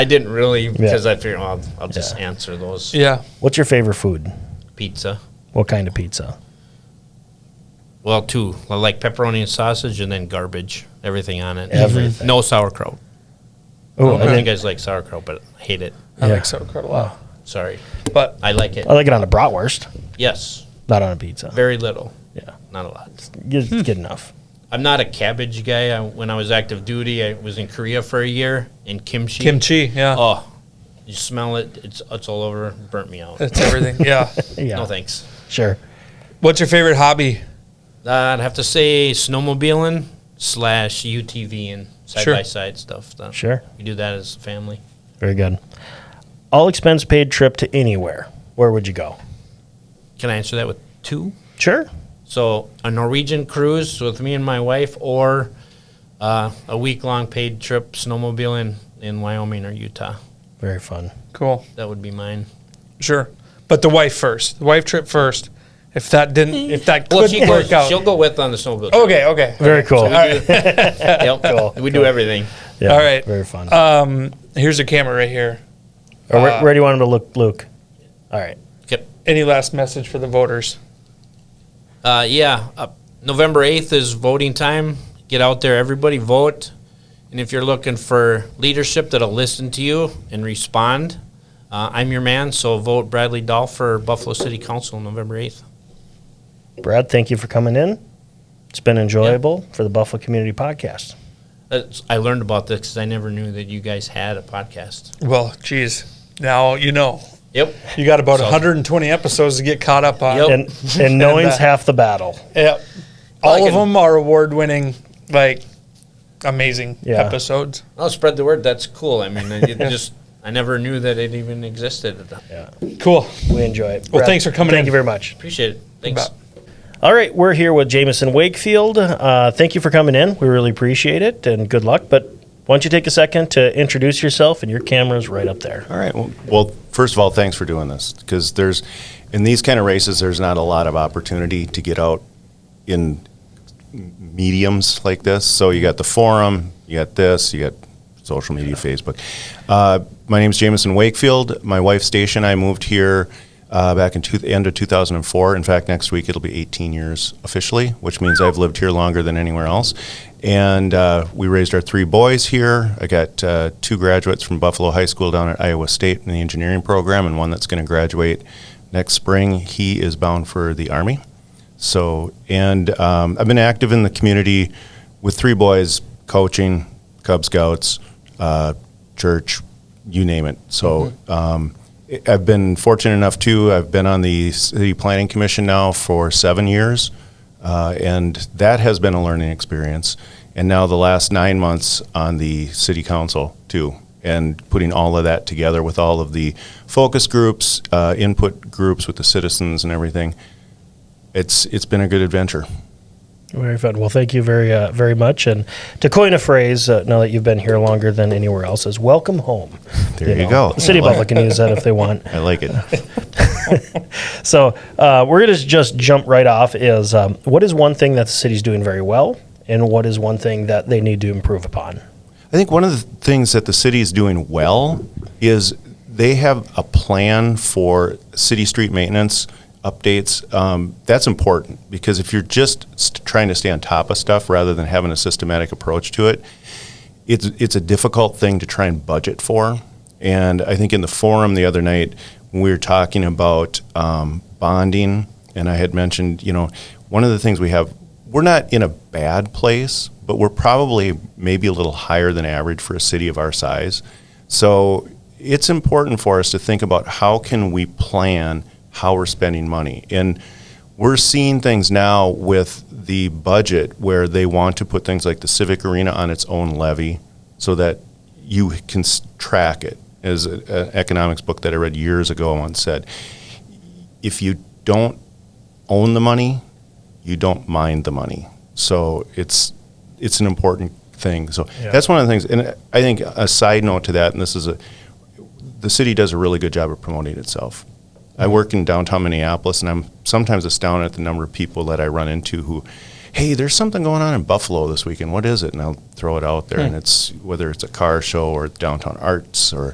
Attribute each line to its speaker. Speaker 1: I didn't really because I figured well, I'll, I'll just
Speaker 2: Yeah.
Speaker 1: answer those.
Speaker 3: Yeah.
Speaker 2: What's your favorite food?
Speaker 1: Pizza.
Speaker 2: What kind of pizza?
Speaker 1: Well, two. I like pepperoni and sausage, and then garbage. Everything on it.
Speaker 2: Everything.
Speaker 1: No sauerkraut.
Speaker 2: Oh,
Speaker 1: I know you guys like sauerkraut, but I hate it.
Speaker 3: I
Speaker 2: Yeah.
Speaker 3: like sauerkraut a lot.
Speaker 1: Sorry,
Speaker 3: But uh,
Speaker 1: I like it.
Speaker 2: I like it on a bratwurst,
Speaker 1: Yes,
Speaker 2: not on a pizza.
Speaker 1: very little.
Speaker 2: Yeah,
Speaker 1: Not a lot.
Speaker 2: good,
Speaker 3: Hmm.
Speaker 2: good enough.
Speaker 1: I'm not a cabbage guy. I, when I was active duty, I was in Korea for a year in kimchi.
Speaker 3: kimchi, yeah.
Speaker 1: Oh, you smell it. It's it's all over. Burnt me out.
Speaker 3: That's everything. Uh, Yeah.
Speaker 2: Yeah,
Speaker 1: No thanks.
Speaker 2: sure.
Speaker 3: What's your favorite hobby?
Speaker 1: Uh, I'd have to say snowmobiling slash UTV and side
Speaker 3: Sure.
Speaker 1: by side stuff. Though.
Speaker 2: Sure.
Speaker 1: We do that as a family.
Speaker 2: Very good. All expense paid trip to anywhere. Where would you go?
Speaker 1: Can I answer that with two?
Speaker 2: Sure.
Speaker 1: So a Norwegian cruise with me and my wife, or uh, a week long paid trip snowmobiling in Wyoming or Utah.
Speaker 2: Very fun.
Speaker 3: Cool.
Speaker 1: That would be mine.
Speaker 3: Sure. But the wife first. The wife trip first. If that didn't if that
Speaker 1: Well,
Speaker 3: couldn't
Speaker 1: she goes,
Speaker 3: work out.
Speaker 1: she'll go with on the snowmobile. trip.
Speaker 3: Okay, okay.
Speaker 2: Very cool.
Speaker 3: Oh, All right.
Speaker 1: Yep. We do everything.
Speaker 2: Yeah,
Speaker 3: All right.
Speaker 2: Very fun.
Speaker 3: Um here's a camera right here.
Speaker 2: Or where,
Speaker 3: uh,
Speaker 2: where do you want him to look, Luke? All right.
Speaker 1: Yep.
Speaker 3: Any last message for the voters?
Speaker 1: Uh, yeah, uh, November 8th is voting time. Get out there, everybody, vote. And if you're looking for leadership that'll listen to you and respond, uh, I'm your man, so vote Bradley Dahl for Buffalo City Council on November 8th.
Speaker 2: Brad, thank you for coming in. It's been enjoyable for the Buffalo Community Podcast.
Speaker 1: That's, I learned about this because I never knew that you guys had a podcast.
Speaker 3: Well, geez. Now you know.
Speaker 1: Yep.
Speaker 3: You got about
Speaker 1: So-
Speaker 3: 120 episodes to get caught up on.
Speaker 1: Yep.
Speaker 2: And and knowing's
Speaker 3: Oh. uh,
Speaker 2: half the battle.
Speaker 3: Yep. All
Speaker 1: Like
Speaker 3: of
Speaker 1: an-
Speaker 3: them are award winning, like amazing
Speaker 2: Yeah.
Speaker 3: episodes.
Speaker 1: I'll spread the word. That's cool. I mean, it just I never knew that it even existed.
Speaker 3: Cool.
Speaker 2: We enjoy it.
Speaker 3: Well, thanks for coming
Speaker 2: Thank
Speaker 3: in.
Speaker 2: you very much.
Speaker 1: Appreciate it. Thanks.
Speaker 3: About-
Speaker 2: All right, we're here with Jameson Wakefield. Uh, thank you for coming in. We really appreciate it, and good luck. But why don't you take a second to introduce yourself? And your camera's right up there.
Speaker 4: All right. Well, well, first of all, thanks for doing this because there's in these kind of races, there's not a lot of opportunity to get out in mediums like this. So you got the forum, you got this, you got social media, Facebook. Uh, my name's Jameson Wakefield. My wife's station. I moved here uh, back in two, end of 2004. In fact, next week it'll be 18 years officially, which means I've lived here longer than anywhere else. And uh, we raised our three boys here. I got uh, two graduates from Buffalo High School down at Iowa State in the engineering program, and one that's going to graduate next spring. He is bound for the Army. So, and um, I've been active in the community with three boys, coaching, Cub Scouts, uh, church, you name it. So, um, I- I've been fortunate enough too. I've been on the City Planning Commission now for seven years, uh, and that has been a learning experience. And now the last nine months on the City Council too, and putting all of that together with all of the focus groups, uh, input groups with the citizens and everything it's it's been a good adventure.
Speaker 2: Very fun. Well, thank you very uh, very much. And to coin a phrase, uh, now that you've been here longer than anywhere else, is welcome home.
Speaker 4: There you go.
Speaker 2: The City of
Speaker 4: I like
Speaker 2: Buffalo can use that if they want.
Speaker 4: I like it.
Speaker 2: So uh, we're going to just jump right off. Is um, what is one thing that the city's doing very well, and what is one thing that they need to improve upon?
Speaker 4: I think one of the things that the city is doing well is they have a plan for city street maintenance updates. Um, that's important because if you're just st- trying to stay on top of stuff rather than having a systematic approach to it, it's it's a difficult thing to try and budget for. And I think in the forum the other night we were talking about um, bonding, and I had mentioned, you know, one of the things we have, we're not in a bad place, but we're probably maybe a little higher than average for a city of our size. So it's important for us to think about how can we plan how we're spending money and we're seeing things now with the budget where they want to put things like the civic arena on its own levy so that you can s- track it as an economics book that i read years ago once said if you don't own the money you don't mind the money so it's it's an important thing so that's one of the things and i think a side note to that and this is a the city does a really good job of promoting itself. I work in downtown Minneapolis, and I'm sometimes astounded at the number of people that I run into who, hey, there's something going on in Buffalo this weekend. What is it? And I'll throw it out there, and it's whether it's a car show or downtown arts or